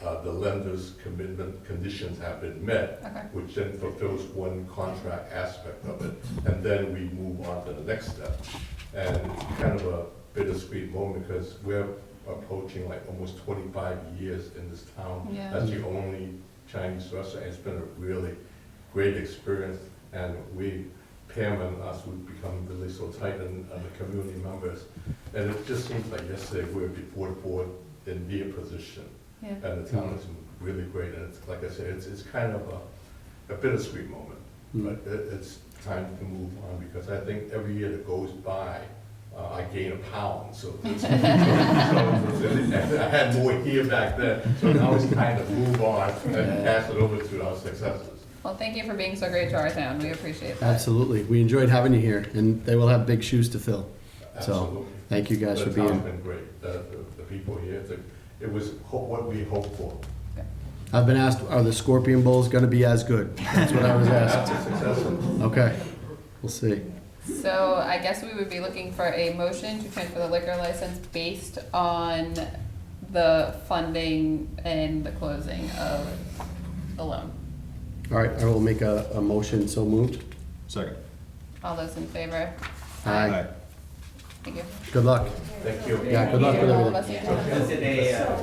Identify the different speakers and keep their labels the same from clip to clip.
Speaker 1: Uh, the lender's commitment conditions have been met,
Speaker 2: Okay,
Speaker 1: which then fulfills one contract aspect of it, and then we move on to the next step. And it's kind of a bittersweet moment, because we're approaching like almost twenty-five years in this
Speaker 3: Oh,
Speaker 1: town.
Speaker 2: Yeah.
Speaker 1: That's the only Chinese restaurant, it's been a really great experience, and we, Pam and us, we've become really so tight and, and the community members. And it just seems like yesterday we were before the board in their position,
Speaker 2: yeah.
Speaker 1: and the town is really great, and it's, like I said, it's, it's kind of a, a bittersweet moment.
Speaker 3: Mm.
Speaker 1: But it, it's time to move on, because I think every year that goes by, uh, I gain a pound, so. it's- so it's- it's- I had more here back then, so now it's time to move on and pass it over to our successors.
Speaker 2: Well, thank you for being so great to our town. We appreciate that.
Speaker 3: Absolutely. We enjoyed having you here, and they will have big shoes to fill. So,
Speaker 1: Absolutely.
Speaker 3: thank you guys for
Speaker 1: The town's
Speaker 3: being.
Speaker 1: been great, the, the- the people here, the- it was ho- what we hoped for.
Speaker 3: I've been asked, are the Scorpion Bowls going to be as good? That's what I was asked.
Speaker 1: After successful,
Speaker 3: Okay, we'll see.
Speaker 2: So I guess we would be looking for a motion to transfer the liquor license based on the funding and the closing of the loan.
Speaker 3: All right, I will make a, a motion, so moved.
Speaker 4: Second.
Speaker 2: All those in favor?
Speaker 3: Aye.
Speaker 2: Thank you.
Speaker 3: Good luck.
Speaker 1: thank you.
Speaker 3: Yeah, good luck with
Speaker 2: All of
Speaker 3: everything.
Speaker 2: us.
Speaker 5: Because they, uh,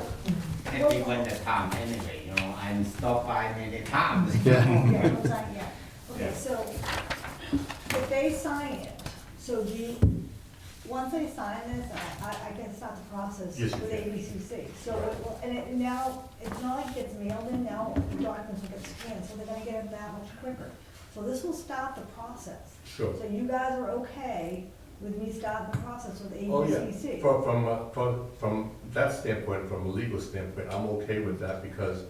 Speaker 5: everyone the time anyway, you know, I'm stopped by many times.
Speaker 3: Yeah.
Speaker 6: Yeah, hold on, yeah.
Speaker 5: Yeah.
Speaker 6: Okay, so if they sign it, so do you, once they sign this, I, I- I can start the process
Speaker 1: Yes,
Speaker 6: with
Speaker 1: you can.
Speaker 6: ABCC. So it will, and it now, it's not like it's mailed in, now the documents will get scanned, so they're gonna get it that much quicker. So this will start the process.
Speaker 1: Sure.
Speaker 6: So you guys are okay with me starting the process with
Speaker 1: Oh, yeah.
Speaker 6: ABCC?
Speaker 1: From, from, uh, from, from that standpoint, from a legal standpoint, I'm okay with that because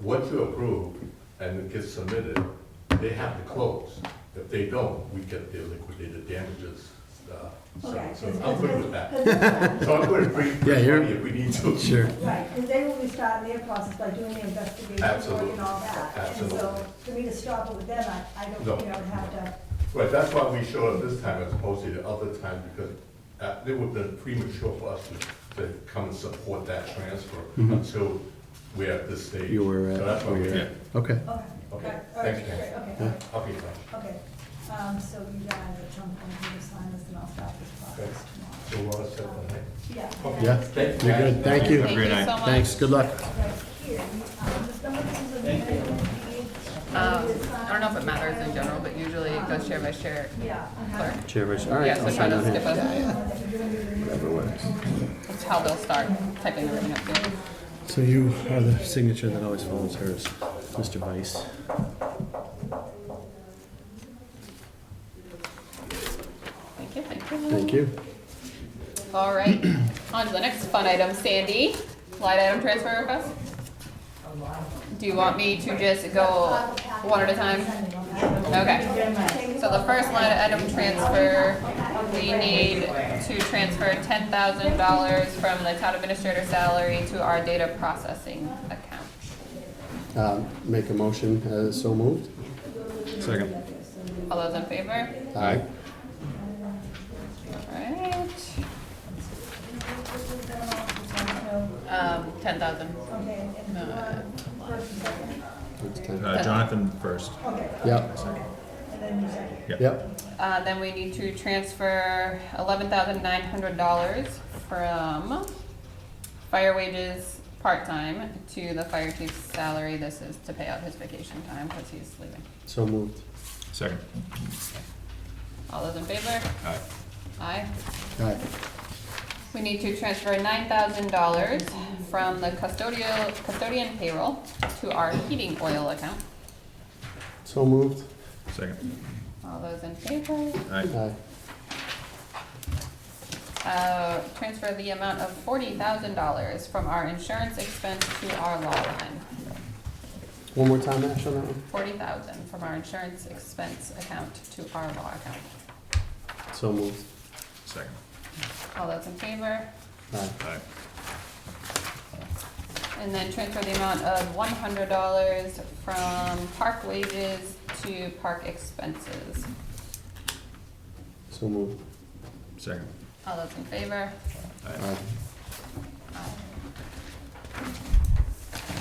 Speaker 1: what you approve and it gets submitted, they have to close. If they don't, we get their liquidated damages. uh, so-
Speaker 6: Okay.
Speaker 1: So
Speaker 6: 'cause-
Speaker 1: I'm good with
Speaker 6: 'cause-
Speaker 1: that.
Speaker 6: 'cause-
Speaker 1: So I'm good with free,
Speaker 3: Yeah,
Speaker 1: free
Speaker 3: you're-
Speaker 1: money if we need to.
Speaker 3: Sure.
Speaker 6: Right, because they will be starting their process by doing the investigation work
Speaker 1: Absolutely.
Speaker 6: and all that. And
Speaker 1: Absolutely.
Speaker 6: so for me to stop it with them, I, I
Speaker 1: No.
Speaker 6: don't, you know, have to,
Speaker 1: Right, that's why we showed up this time as opposed to the other time, because uh, it would have been premature for us to, to come and support that transfer until we're at this stage.
Speaker 3: Mm-hmm. You were
Speaker 1: So
Speaker 3: at-
Speaker 1: that's why
Speaker 3: where
Speaker 1: we're
Speaker 3: you're
Speaker 1: here.
Speaker 3: Okay.
Speaker 6: okay.
Speaker 1: Okay,
Speaker 6: All right,
Speaker 1: thanks, Ken.
Speaker 6: great, Okay,
Speaker 3: Yeah.
Speaker 6: all
Speaker 1: I'll be fine.
Speaker 6: right, okay. Um, so you guys at some point need to sign this and I'll stop this process tomorrow.
Speaker 1: So we're all set for tonight?
Speaker 6: Yeah.
Speaker 3: Yeah,
Speaker 1: Thank you.
Speaker 3: you're good. Thank
Speaker 2: Thank
Speaker 3: you.
Speaker 2: you so much.
Speaker 3: Thanks, good luck.
Speaker 6: Right here, um, the stomach is a very good deed.
Speaker 2: Um, I don't know if it matters in general, but usually it goes share by share.
Speaker 6: Yeah. I'm
Speaker 2: Clerk.
Speaker 6: happy.
Speaker 3: Chair, Rich. all right.
Speaker 2: Yeah, so
Speaker 3: I'll
Speaker 2: try
Speaker 3: sign
Speaker 2: to
Speaker 3: on
Speaker 2: skip
Speaker 3: here.
Speaker 2: us. That's how they'll start typing everything up there.
Speaker 3: So you are the signature that always follows hers, Mr. Vice.
Speaker 2: Thank you, thank you.
Speaker 3: Thank you.
Speaker 2: All right, on to the next fun item, Sandy, line item transfer request. Do you want me to just go one at a time? Okay, so the first line item transfer, we need to transfer ten thousand dollars from the town administrator salary to our data processing account.
Speaker 3: Um, Make a motion, uh, so moved.
Speaker 4: Second.
Speaker 2: All those in favor?
Speaker 3: Aye.
Speaker 2: Alright. Um, ten thousand.
Speaker 6: Okay, and you want first and second?
Speaker 3: That's ten.
Speaker 4: Uh, Jonathan first.
Speaker 6: Okay,
Speaker 3: Yep,
Speaker 6: and then you second.
Speaker 3: yep.
Speaker 2: Uh, then we need to transfer eleven thousand nine hundred dollars from fire wages part-time to the fire chief's salary. This is to pay out his vacation time because he's leaving.
Speaker 3: So moved.
Speaker 4: Second.
Speaker 2: All those in favor?
Speaker 4: Aye.
Speaker 2: Aye.
Speaker 3: Aye.
Speaker 2: We need to transfer nine thousand dollars from the custodial, custodian payroll to our heating oil account.
Speaker 3: So moved.
Speaker 4: Second.
Speaker 2: All those in favor?
Speaker 4: Aye.
Speaker 3: Aye.
Speaker 2: Uh, transfer the amount of forty thousand dollars from our insurance expense to our law line.
Speaker 3: One more time, Ash, on that one.
Speaker 2: Forty thousand from our insurance expense account to our law account.
Speaker 3: So moved.
Speaker 4: Second.
Speaker 2: All those in favor?
Speaker 3: Aye.
Speaker 4: Aye.
Speaker 2: And then transfer the amount of one hundred dollars from park wages to park expenses.
Speaker 3: So moved.
Speaker 4: Second.
Speaker 2: All those in favor?
Speaker 3: Aye.
Speaker 4: Aye.